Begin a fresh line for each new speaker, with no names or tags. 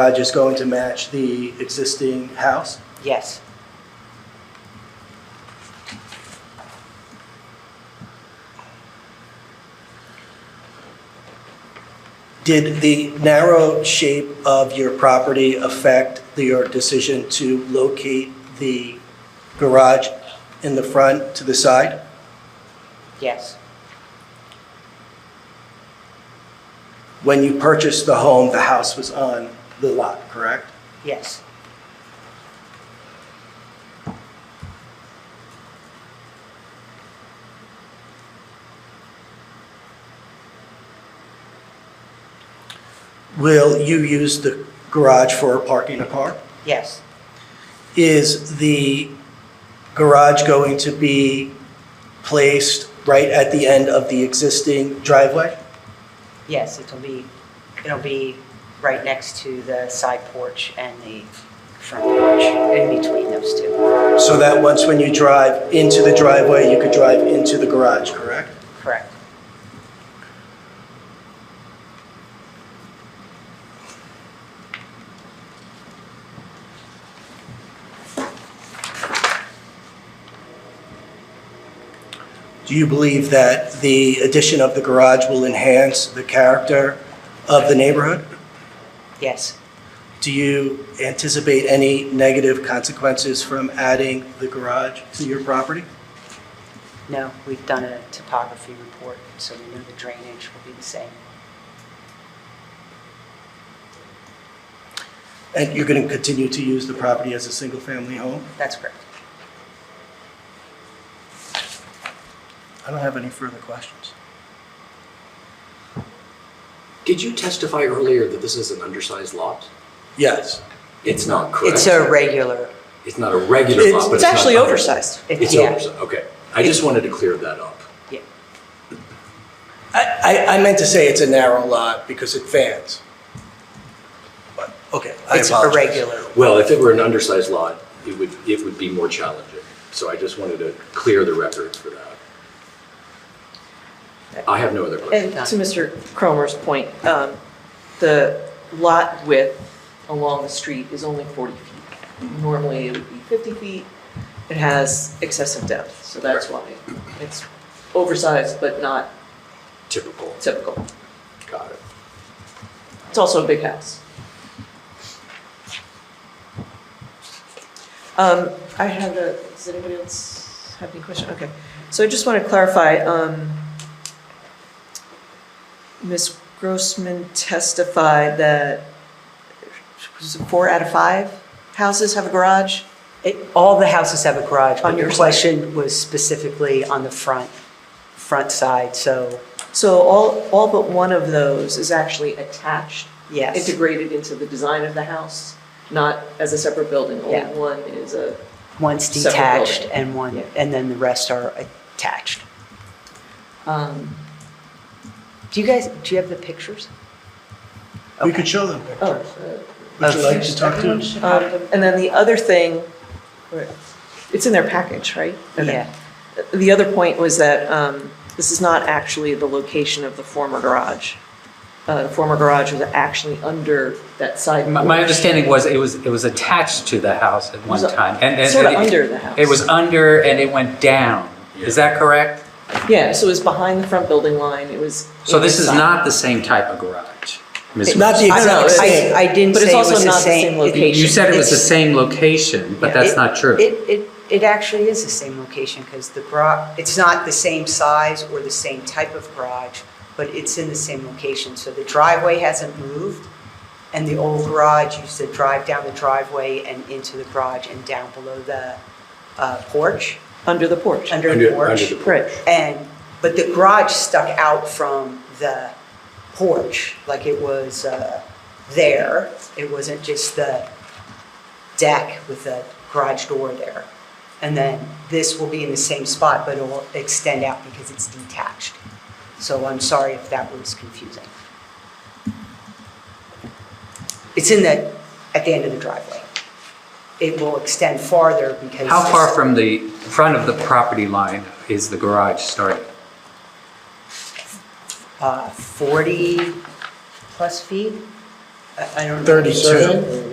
Uh, Just going to match the existing house?
Yes.
Did the narrow shape of your property affect the- your decision to locate the garage in the front to the side?
Yes.
When you purchased the home, the house was on the lot, correct?
Yes.
Will you use the garage for parking a car?
Yes.
Is the garage going to be placed right at the end of the existing driveway?
Yes. It'll be. It'll be right next to the side porch and the front porch, in between those two.
So that once when you drive into the driveway, you could drive into the garage, correct?
Correct.
Do you believe that the addition of the garage will enhance the character of the neighborhood?
Yes.
Do you anticipate any negative consequences from adding the garage to your property?
No. We've done a topography report, so we know the drainage will be the same.
And you're going to continue to use the property as a single-family home?
That's correct.
I don't have any further questions.
Did you testify earlier that this is an undersized lot?
Yes.
It's not, correct?
It's a regular,
It's not a regular lot, but
it's
it's not
actually
under-
oversized.
It's
yeah.
oversized, okay. I just wanted to clear that up.
Yeah.
I, I, I meant to say it's a narrow lot because it fans. But, okay, I
It's
apologize.
irregular.
Well, if it were an undersized lot, it would, it would be more challenging. So I just wanted to clear the record for that. I have no other questions.
And to Mr. Cromer's point, um, the lot width along the street is only 40 feet. Normally, it would be 50 feet. It has excessive depth, so that's why it's oversized but not
Typical,
typical.
got it.
It's also a big house. Um, I have a, does anybody else have any question? Okay, so I just want to clarify, um, Ms. Grossman testified that was it four out of five houses have a garage?
It, all the houses have a garage,
On
but your
your side.
question was specifically on the front, front side, so
So all, all but one of those is actually attached,
yes.
integrated into the design of the house, not as a separate building. Only
Yeah.
one is a
One's
Separate
detached
building.
and one,
Yeah.
and then the rest are attached.
Um,
Do you guys, do you have the pictures?
We
Okay.
could show them.
oh,
Would you like to talk to us?
uh, um, and then the other thing, it's in their package, right? Okay.
Yeah,
The other point was that um, this is not actually the location of the former garage. Uh, the former garage was actually under that side.
My,
porch.
my understanding was it was it was attached to the house at one
Was it-
time, and, and
Sort of
it,
under the house.
It was under, and it went down. Is that correct?
Yeah, so it was behind the front building line. It was.
So this is
inside.
not the same type of garage. Ms.
Not the
I don't
exact
know, it's- uh,
same.
I, I didn't
But it's
say it
also
was the
not the
same.
same
it-
location.
You said it was the
It's-
same location, but
Yeah.
that's
it-
not true.
It, it, it actually is the same location because the garage, it's not the same size or the same type of garage, but it's in the same location. So the driveway hasn't moved and the old garage used to drive down the driveway and into the garage and down below the uh, porch,
under the porch.
under the
Under,
porch.
under the.
right.
And, but the garage stuck out from the porch, like it was uh, there. It wasn't just the deck with the garage door there. And then this will be in the same spot, but it will extend out because it's detached. So I'm sorry if that was confusing. It's in the, at the end of the driveway. It will extend farther because.
How far
this-
from the front of the property line is the garage starting?
uh, 40 plus feet. I I don't know.
32.